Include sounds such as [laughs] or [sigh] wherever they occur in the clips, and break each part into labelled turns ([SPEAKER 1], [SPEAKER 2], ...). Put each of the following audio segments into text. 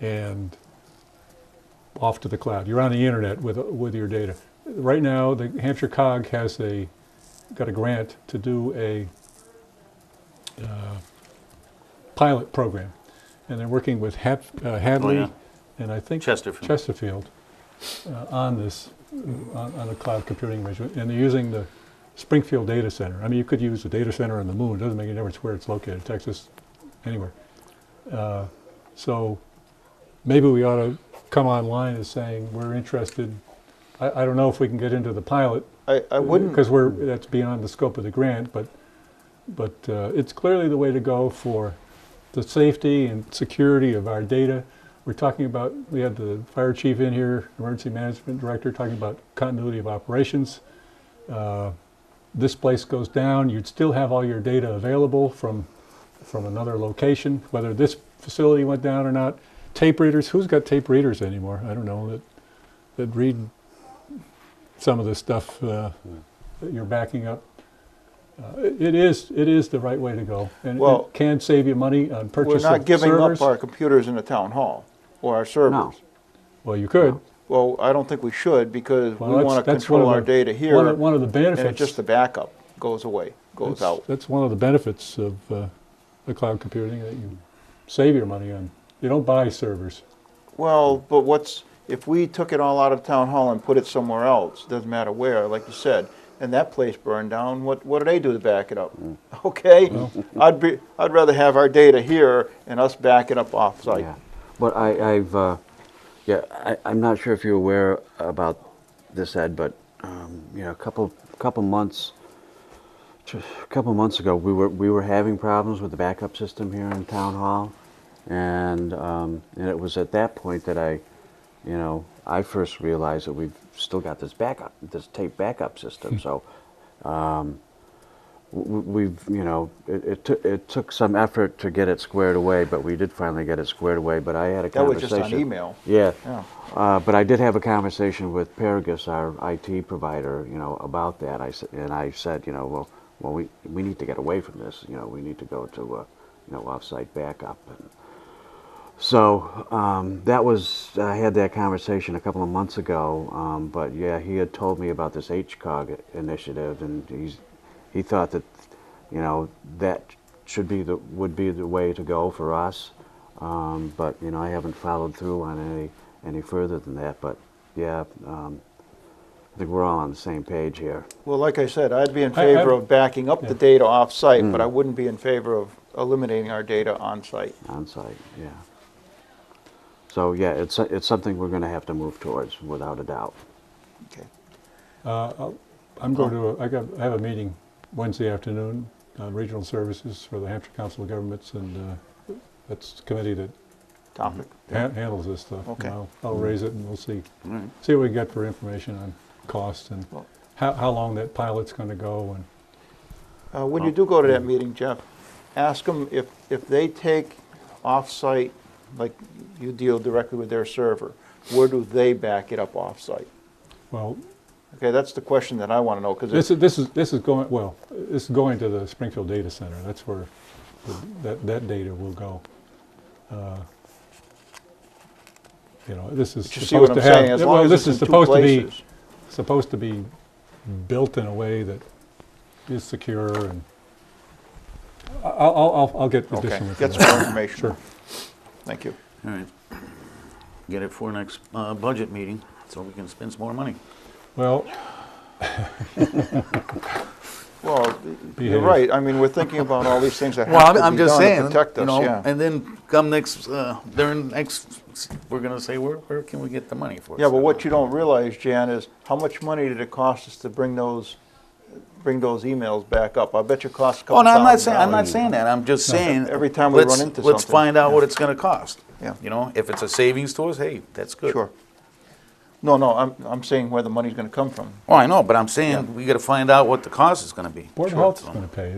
[SPEAKER 1] and off to the cloud. You're on the internet with, with your data. Right now, the Hampshire COG has a, got a grant to do a uh, pilot program. And they're working with Hap, uh, Hadley
[SPEAKER 2] yeah.
[SPEAKER 1] and I think
[SPEAKER 2] Chesterfield.
[SPEAKER 1] Chesterfield uh, on this, uh, on, on a cloud computing arrangement. And they're using the Springfield Data Center. I mean, you could use the data center on the moon. It doesn't make any difference where it's located, Texas, anywhere. Uh, so maybe we ought to come online as saying we're interested. I, I don't know if we can get into the pilot
[SPEAKER 3] I, I wouldn't.
[SPEAKER 1] because we're that's beyond the scope of the grant, but but uh, it's clearly the way to go for the safety and security of our data. We're talking about we had the fire chief in here, emergency management director, talking about continuity of operations. Uh, this place goes down, you'd still have all your data available from from another location, whether this facility went down or not. Tape readers, who's got tape readers anymore? I don't know that that read some of the stuff uh, that you're backing up. Uh, it- It is, it is the right way to go. And
[SPEAKER 3] Well,
[SPEAKER 1] it can save you money on
[SPEAKER 3] We're
[SPEAKER 1] purchase
[SPEAKER 3] not
[SPEAKER 1] of
[SPEAKER 3] giving up
[SPEAKER 1] servers.
[SPEAKER 3] our computers in the town hall or our servers.
[SPEAKER 1] Well, you could.
[SPEAKER 3] Well, I don't think we should because
[SPEAKER 1] Well,
[SPEAKER 3] we
[SPEAKER 1] that's-
[SPEAKER 3] want to
[SPEAKER 1] that's one
[SPEAKER 3] control
[SPEAKER 1] of
[SPEAKER 3] our
[SPEAKER 1] the-
[SPEAKER 3] data here.
[SPEAKER 1] One of- one of the
[SPEAKER 3] and it's
[SPEAKER 1] benefits.
[SPEAKER 3] just the backup goes away, goes
[SPEAKER 1] that's-
[SPEAKER 3] out.
[SPEAKER 1] That's one of the benefits of uh, the cloud computing, that you save your money on. You don't buy servers.
[SPEAKER 3] Well, but what's, if we took it all out of town hall and put it somewhere else, doesn't matter where, like you said, and that place burned down, what, what do they do to back it up?
[SPEAKER 1] Mm.
[SPEAKER 3] [laughs] Okay? I'd be, I'd rather have our data here and us back it up off-site.
[SPEAKER 4] Yeah, but I, I've, uh, yeah, I, I'm not sure if you're aware about this, Ed, but, um, you know, a couple, couple months, tr- a couple months ago, we were, we were having problems with the backup system here in town hall. And, um, and it was at that point that I, you know, I first realized that we've still got this backup, this tape backup system, so, w- we've, you know, it, it, took it took some effort to get it squared away, but we did finally get it squared away. But I had a
[SPEAKER 3] That was
[SPEAKER 4] conversation.
[SPEAKER 3] just on email.
[SPEAKER 4] Yeah.
[SPEAKER 3] Yeah.
[SPEAKER 4] Uh, but I did have a conversation with Paragus, our IT provider, you know, about that. I said, and I said, you know, well, well, we we need to get away from this. You know, we need to go to, uh, you know, offsite backup. And so um, that was I had that conversation a couple of months ago. Um, but yeah, he had told me about this HCOG initiative, and he's he thought that, you know, that should be the would be the way to go for us. Um, but you know, I haven't followed through on any any further than that. But yeah, um, I think we're all on the same page here.
[SPEAKER 3] Well, like I said, I'd be in
[SPEAKER 1] I- I-
[SPEAKER 3] favor of backing up
[SPEAKER 1] Yeah.
[SPEAKER 3] the data off-site, but I wouldn't be in favor of eliminating our data on-site.
[SPEAKER 4] on site, yeah. So, yeah, it's, it's something we're gonna have to move towards, without a doubt.
[SPEAKER 3] Okay.
[SPEAKER 1] Uh, I'm going to, a- I got, I have a meeting Wednesday afternoon on regional services for the Hampshire Council of Governments, and uh, that's the committee that
[SPEAKER 3] Topic.
[SPEAKER 1] ha- handles this stuff. and
[SPEAKER 3] Okay.
[SPEAKER 1] I'll- I'll raise it and we'll see, see what we get for information on cost and
[SPEAKER 3] Well-
[SPEAKER 1] how, how long that pilot's going to go and.
[SPEAKER 3] Uh, When you do go to that meeting, Jeff, ask them if, if they take off-site, like you deal directly with their server, where do they back it up off-site?
[SPEAKER 1] Well,
[SPEAKER 3] Okay, that's the question that I want to know,
[SPEAKER 1] this
[SPEAKER 3] because
[SPEAKER 1] is, this is, this is going, well, this is going to the Springfield Data Center. That's where the- that, that data will go. Uh, You know, this is
[SPEAKER 3] you see what
[SPEAKER 1] supposed
[SPEAKER 3] I'm
[SPEAKER 1] to have.
[SPEAKER 3] saying, as
[SPEAKER 1] well,
[SPEAKER 3] long as
[SPEAKER 1] this
[SPEAKER 3] it's
[SPEAKER 1] is
[SPEAKER 3] in two
[SPEAKER 1] supposed to be-
[SPEAKER 3] places.
[SPEAKER 1] Supposed to be built in a way that is secure and I- I'll, I'll, I'll- I'll get
[SPEAKER 3] Okay,
[SPEAKER 1] additional
[SPEAKER 3] get
[SPEAKER 1] information.
[SPEAKER 3] some more information.
[SPEAKER 1] [coughs] Sure.
[SPEAKER 3] Thank you.
[SPEAKER 2] All right. Get it for next uh, budget meeting, so we can spend some more money.
[SPEAKER 1] Well,
[SPEAKER 3] Well, you're
[SPEAKER 1] Behave.
[SPEAKER 3] right, I mean, we're thinking about all these things that
[SPEAKER 2] Well,
[SPEAKER 3] have
[SPEAKER 2] I'm,
[SPEAKER 3] to
[SPEAKER 2] I'm
[SPEAKER 3] be
[SPEAKER 2] just
[SPEAKER 3] done
[SPEAKER 2] saying,
[SPEAKER 3] to protect
[SPEAKER 2] you
[SPEAKER 3] us,
[SPEAKER 2] know,
[SPEAKER 3] yeah.
[SPEAKER 2] and then come next, uh, during next, we're gonna say, where, where can we get the money for?
[SPEAKER 3] Yeah, but what you don't realize, Jan, is how much money did it cost us to bring those, bring those emails back up? I bet you it cost a
[SPEAKER 2] Oh,
[SPEAKER 3] couple
[SPEAKER 2] no,
[SPEAKER 3] thousand
[SPEAKER 2] I'm not saying, I'm not
[SPEAKER 3] dollars.
[SPEAKER 2] saying that, I'm just saying.
[SPEAKER 3] Every time we run
[SPEAKER 2] let's-
[SPEAKER 3] into
[SPEAKER 2] Let's
[SPEAKER 3] something.
[SPEAKER 2] find out what it's gonna cost.
[SPEAKER 3] Yeah.
[SPEAKER 2] You know, if it's a savings to us, hey, that's good.
[SPEAKER 3] Sure. No, no, I'm, I'm saying where the money's gonna come from.
[SPEAKER 2] Oh, I know, but I'm saying, we gotta find out what the cost is gonna be.
[SPEAKER 1] Board of
[SPEAKER 2] Sure.
[SPEAKER 1] Health is going to pay.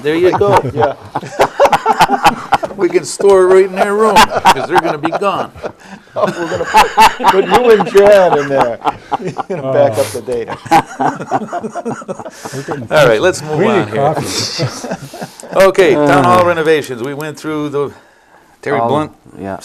[SPEAKER 2] There you go.
[SPEAKER 3] [laughs] Yeah,
[SPEAKER 2] We can store it right in their room, because they're gonna be gone.
[SPEAKER 3] put you and Jan in there, [laughs] You're gonna back up the data.
[SPEAKER 1] We're getting-
[SPEAKER 2] All right, let's move
[SPEAKER 1] We
[SPEAKER 2] on
[SPEAKER 1] need
[SPEAKER 2] here.
[SPEAKER 1] coffee.
[SPEAKER 2] Okay, town hall renovations, we went through the, Terry
[SPEAKER 4] All-
[SPEAKER 2] Blunt
[SPEAKER 4] Yeah.